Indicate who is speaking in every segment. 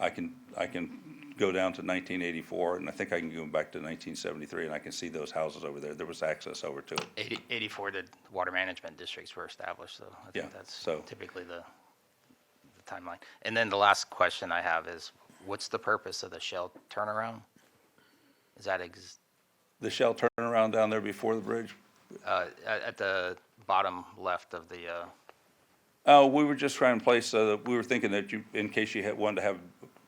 Speaker 1: I can, I can go down to nineteen eighty-four, and I think I can go back to nineteen seventy-three, and I can see those houses over there, there was access over to it.
Speaker 2: 80 84, the water management districts were established, so I
Speaker 1: Yeah,
Speaker 2: think that's
Speaker 1: so-
Speaker 2: typically the the timeline. And then the last question I have is, what's the purpose of the Shell turnaround? Is that ex-
Speaker 1: The Shell turnaround down there before the bridge,
Speaker 2: uh, at at the bottom left of the, uh,
Speaker 1: Uh, we were just trying to place, uh, we were thinking that you, in case you had, wanted to have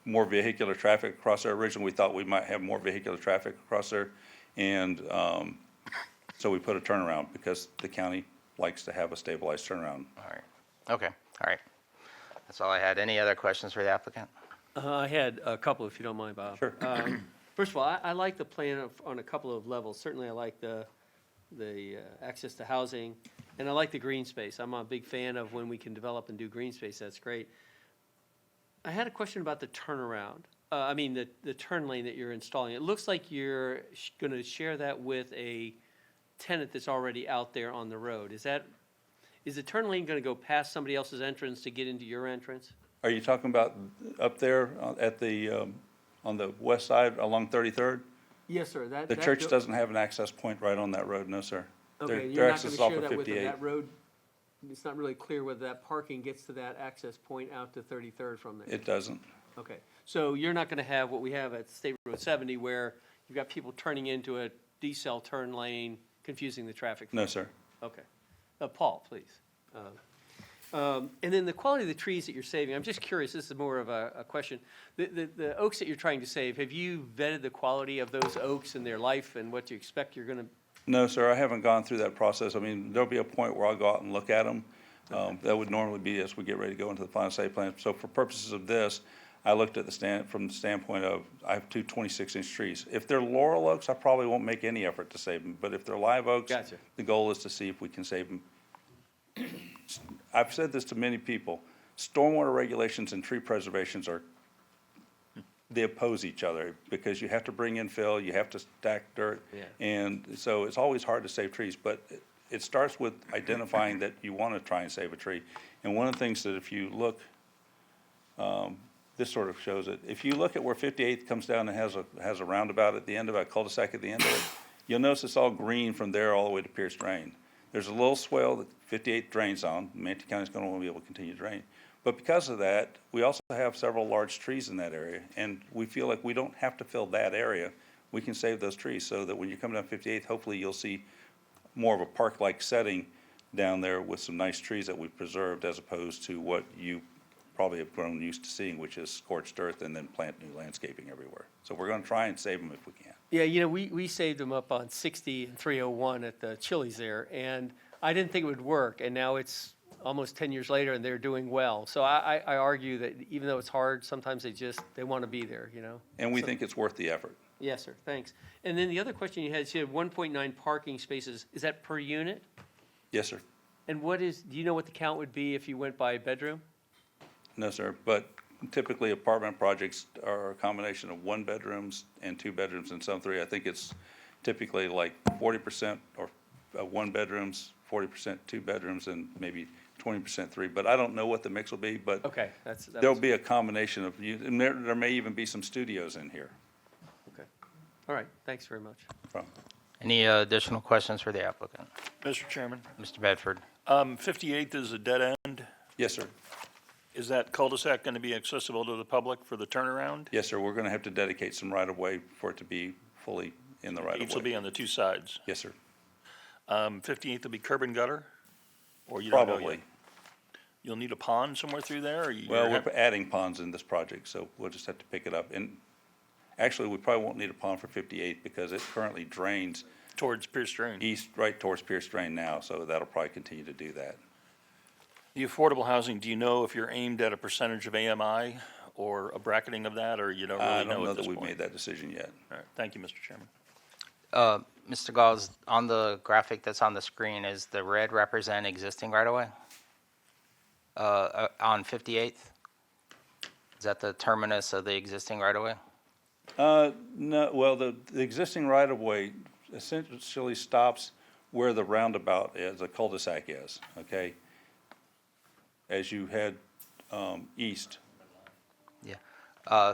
Speaker 1: more vehicular traffic across there, originally, we thought we might have more vehicular traffic across there. And, um, so we put a turnaround, because the county likes to have a stabilized turnaround.
Speaker 2: all right, okay, all right. That's all I had. Any other questions for the applicant?
Speaker 3: Uh, I had a couple, if you don't mind, Bob.
Speaker 1: Sure.
Speaker 3: Um, First of all, I, I like the plan of, on a couple of levels. Certainly, I like the, the uh, access to housing, and I like the green space. I'm a big fan of when we can develop and do green space, that's great. I had a question about the turnaround, uh, I mean, the, the turn lane that you're installing. It looks like you're sh- gonna share that with a tenant that's already out there on the road. Is that, is the turn lane gonna go past somebody else's entrance to get into your entrance?
Speaker 1: Are you talking about up there uh, at the, um, on the west side along Thirty-third?
Speaker 3: Yes, sir, that.
Speaker 1: The church doesn't have an access point right on that road, no, sir. Their-
Speaker 3: Okay,
Speaker 1: their
Speaker 3: you're not
Speaker 1: access
Speaker 3: gonna
Speaker 1: is off
Speaker 3: share
Speaker 1: of
Speaker 3: that with them,
Speaker 1: 58.
Speaker 3: that road, it's not really clear whether that parking gets to that access point out to Thirty-third from there.
Speaker 1: It doesn't.
Speaker 3: Okay, so you're not gonna have what we have at State Road seventy where you've got people turning into a D-cell turn lane, confusing the traffic.
Speaker 1: No, sir.
Speaker 3: Okay. Uh, Paul, please. Uh, um, And then the quality of the trees that you're saving, I'm just curious, this is more of a, a question. The, the, the oaks that you're trying to save, have you vetted the quality of those oaks and their life and what you expect you're gonna
Speaker 1: No, sir, I haven't gone through that process. I mean, there'll be a point where I'll go out and look at them. Um, that would normally be as we get ready to go into the final site plan. So for purposes of this, I looked at the stand, from the standpoint of, I have two 26-inch trees. If they're laurel oaks, I probably won't make any effort to save them, but if they're live oaks.
Speaker 3: Gotcha.
Speaker 1: The goal is to see if we can save them. I've said this to many people, stormwater regulations and tree preservations are they oppose each other because you have to bring in fill, you have to stack dirt.
Speaker 3: Yeah.
Speaker 1: And so it's always hard to save trees, but it- it starts with identifying that you want to try and save a tree. And one of the things that if you look, um, this sort of shows it, if you look at where 58th comes down and has a, has a roundabout at the end of it, a cul-de-sac at the end of it, you'll notice it's all green from there all the way to Pierce Drain. There's a little swale that 58th drains on, Manatee County's going to want to be able to continue to drain. But because of that, we also have several large trees in that area, and we feel like we don't have to fill that area. We can save those trees so that when you come down 58th, hopefully you'll see more of a park-like setting down there with some nice trees that we've preserved as opposed to what you probably have grown used to seeing, which is scorched earth and then plant new landscaping everywhere. So we're going to try and save them if we can.
Speaker 3: Yeah, you know, we, we saved them up on 60 and 301 at the Chili's there, and I didn't think it would work, and now it's almost 10 years later, and they're doing well. So I, I I argue that even though it's hard, sometimes they just, they want to be there, you know?
Speaker 1: And we think it's worth the effort.
Speaker 3: Yes, sir, thanks. And then the other question you had, is you had 1.9 parking spaces, is that per unit?
Speaker 1: Yes, sir.
Speaker 3: And what is, do you know what the count would be if you went by bedroom?
Speaker 1: No, sir, but typically apartment projects are a combination of one bedrooms and two bedrooms and some three. I think it's typically like forty percent or uh, one bedrooms, forty percent two bedrooms, and maybe twenty percent three. But I don't know what the mix will be, but
Speaker 3: Okay, that's, that
Speaker 1: there'll
Speaker 3: was-
Speaker 1: be a combination of, you- and there, there may even be some studios in here.
Speaker 3: okay. All right, thanks very much.
Speaker 1: from-
Speaker 2: Any uh, additional questions for the applicant?
Speaker 4: Mr. Chairman,
Speaker 2: Mr. Bedford?
Speaker 4: um, 58th is a dead end.
Speaker 1: Yes, sir.
Speaker 4: Is that cul-de-sac going to be accessible to the public for the turnaround?
Speaker 1: Yes, sir. We're gonna have to dedicate some right-of-way for it to be fully in the
Speaker 4: Gates will be
Speaker 1: right-of-way.
Speaker 4: on the two sides.
Speaker 1: Yes, sir.
Speaker 4: Um, 58th will be curb and gutter? Or you don't know yet?
Speaker 1: Probably.
Speaker 4: You'll need a pond somewhere through there, or you?
Speaker 1: Well,
Speaker 4: you're
Speaker 1: we're
Speaker 4: hap-
Speaker 1: adding ponds in this project, so we'll just have to pick it up. And actually, we probably won't need a pond for 58 because it currently drains
Speaker 4: Towards Pierce Drain.
Speaker 1: east, right towards Pierce Drain now, so that'll probably continue to do that.
Speaker 4: The affordable housing, do you know if you're aimed at a percentage of AMI or a bracketing of that, or you don't
Speaker 1: I
Speaker 4: really
Speaker 1: don't
Speaker 4: know
Speaker 1: know
Speaker 4: at this
Speaker 1: that we've made
Speaker 4: point?
Speaker 1: that decision yet.
Speaker 4: All right, thank you, Mr. Chairman.
Speaker 2: Uh, Mr. Gauls, on the graphic that's on the screen, is the red represent existing right-of-way? Uh, uh, On 58th? Is that the terminus of the existing right-of-way?
Speaker 1: Uh, no, well, the, the existing right-of-way essentially stops where the roundabout is, the cul-de-sac is, okay? As you head, um, east,
Speaker 2: Yeah. Uh,